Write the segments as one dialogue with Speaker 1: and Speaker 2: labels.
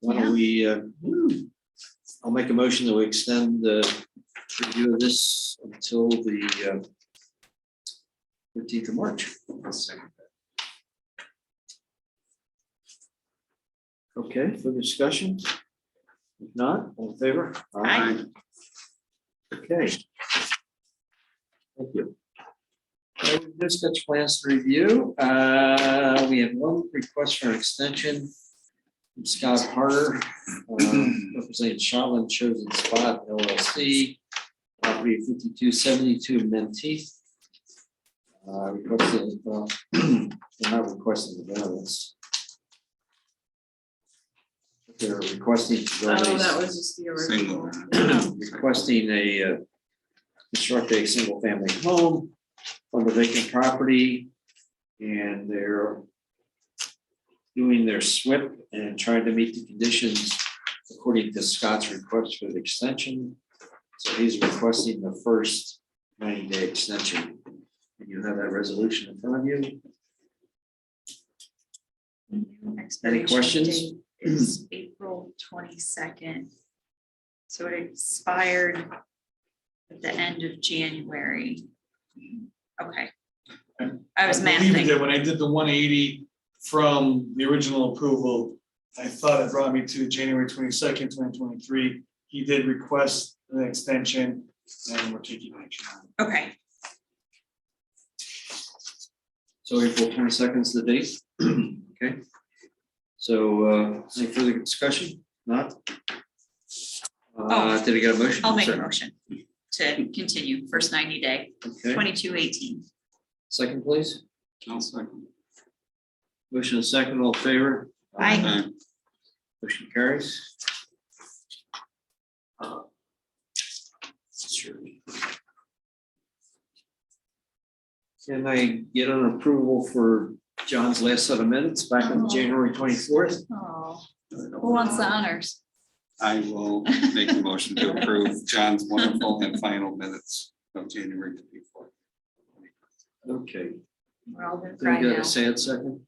Speaker 1: Why don't we, uh, I'll make a motion that we extend the review of this until the uh, fifteenth of March. Okay, further discussion? If not, all in favor?
Speaker 2: Aye.
Speaker 1: Okay. Thank you. Uh, We've just got plans to review. Uh, We have one request for an extension. from Scott Harder, um, representing Shotland Chosen Spot LLC, property fifty-two seventy-two Menteith. Uh, Requested, well, they're not requesting the variance. They're requesting. to go
Speaker 2: Oh,
Speaker 1: east
Speaker 2: that was just the
Speaker 3: Single.
Speaker 2: original.
Speaker 1: requesting a, uh, construct a single-family home on the vacant property. And they're doing their SWIP and trying to meet the conditions according to Scott's request for the extension. So he's requesting the first ninety-day extension. And you have that resolution in front of you. Any questions?
Speaker 2: Is April twenty-second. So it expired at the end of January. Okay. I was
Speaker 4: believe it
Speaker 2: mathing.
Speaker 4: did. When I did the one eighty from the original approval, I thought it brought me to January twenty-second, twenty twenty-three. He did request an extension and we're taking action. on it.
Speaker 2: Okay,
Speaker 1: So April twenty-second is the date. Okay. So, uh, any further discussion? Not? Uh,
Speaker 2: Oh.
Speaker 1: did I get a motion?
Speaker 2: I'll make a
Speaker 1: Sorry.
Speaker 2: motion to continue first ninety day,
Speaker 1: Okay,
Speaker 2: twenty-two eighteen.
Speaker 1: second please.
Speaker 3: I'll second.
Speaker 1: Motion and second, all in favor?
Speaker 2: Aye.
Speaker 1: Motion carries. Uh, sure. Can I get an approval for John's last set of minutes back on
Speaker 2: Oh.
Speaker 1: January twenty-fourth?
Speaker 2: Oh, who wants the honors?
Speaker 3: I will make a motion to approve John's wonderful and final minutes of January twenty-fourth.
Speaker 1: Okay,
Speaker 2: We're all gonna
Speaker 1: then
Speaker 2: cry
Speaker 1: you got
Speaker 2: now.
Speaker 1: a sad second?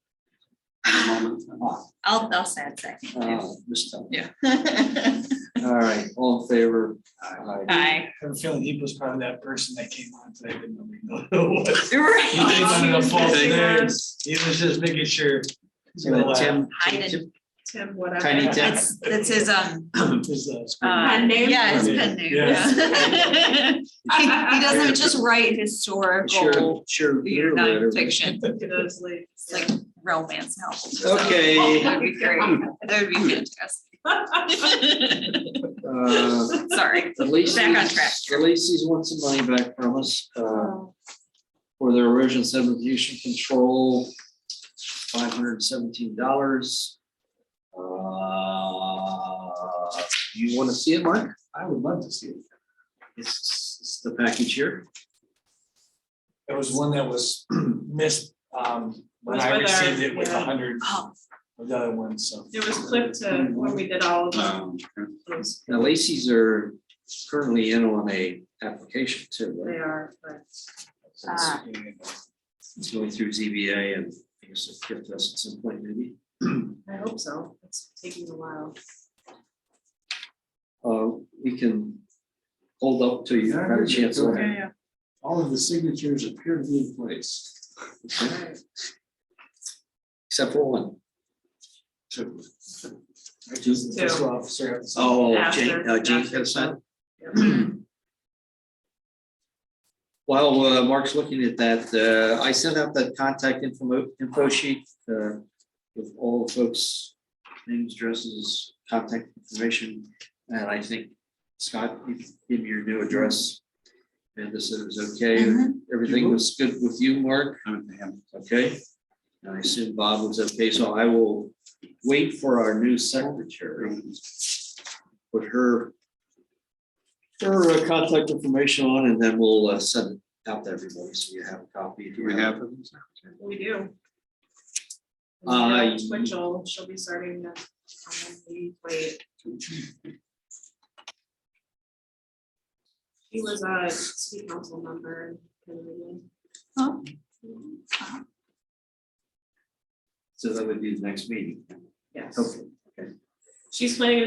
Speaker 2: I'll, I'll say it second.
Speaker 1: Uh, Miss Tucker.
Speaker 2: Yeah.
Speaker 1: All right, all in favor? Aye.
Speaker 2: Aye.
Speaker 4: I have a feeling he was probably that person that came on today, but nobody knew who it was. He
Speaker 2: Oh,
Speaker 4: came on in a false
Speaker 2: Right.
Speaker 4: name. He was just making sure.
Speaker 1: So that Tim-
Speaker 2: Hiding.
Speaker 1: Tim-
Speaker 2: Tim, whatever.
Speaker 1: Tiny Tim.
Speaker 2: That's, that's his, um,
Speaker 4: His, uh,
Speaker 2: uh,
Speaker 5: Pen name?
Speaker 2: yeah, his pen name, yeah. He, he doesn't just write historical,
Speaker 1: Sure, sure.
Speaker 2: you know, nonfiction,
Speaker 5: those ladies.
Speaker 2: it's like romance novels.
Speaker 1: Okay.
Speaker 2: That would be great, that would be fantastic.
Speaker 1: Uh,
Speaker 2: Sorry,
Speaker 1: At least.
Speaker 2: Back on track.
Speaker 1: At least he's won some money back from us, uh, for their erosion subdivision control, five hundred and seventeen dollars. Uh, you wanna see it, Mark?
Speaker 4: I would love to see it.
Speaker 1: It's, it's the package here.
Speaker 4: There was one that was missed, um, when
Speaker 5: Was
Speaker 4: I
Speaker 5: with our-
Speaker 4: received it with a
Speaker 5: yeah.
Speaker 4: hundred
Speaker 5: Uh,
Speaker 2: oh,
Speaker 4: of the other ones, so.
Speaker 5: It was clipped to when we did all of them.
Speaker 3: Um,
Speaker 5: Those-
Speaker 1: Now Lacy's are currently in on a application too,
Speaker 5: They
Speaker 1: right?
Speaker 5: are, but
Speaker 2: Ah.
Speaker 1: It's going through ZBA and I guess it'll get to us at some point maybe.
Speaker 5: I hope so. It's taking a while.
Speaker 1: Uh, we can hold up till you have a chance. to look at it.
Speaker 5: yeah.
Speaker 4: All of the signatures appear to be in place.
Speaker 5: Alright.
Speaker 1: Except for one.
Speaker 4: Two. Just the fiscal officer had to sign.
Speaker 1: Oh,
Speaker 5: After-
Speaker 1: Jane, uh, Jane's
Speaker 5: after
Speaker 1: got a sign.
Speaker 5: Yep.
Speaker 1: While uh, Mark's looking at that, uh, I sent out that contact info, info sheet, uh, with all the folks' names, addresses, contact information. And I think Scott, you give me your new address. And this is okay.
Speaker 2: Mhm.
Speaker 1: Everything was good with you, Mark?
Speaker 3: I'll
Speaker 1: Okay, and I assume Bob was okay, so I will wait for our new secretary. Put her. Her uh, contact information on and then we'll uh, send it out to everybody, so you have a copy. if you
Speaker 3: Do we have
Speaker 5: We do.
Speaker 1: Uh,
Speaker 5: And Carol Twitchell, she'll be starting the, um, we wait. He was a city council member. in
Speaker 2: oh,
Speaker 5: Pennsylvania.
Speaker 1: So that would be the next meeting.
Speaker 5: Yes.
Speaker 1: Okay, okay.
Speaker 5: She's planning to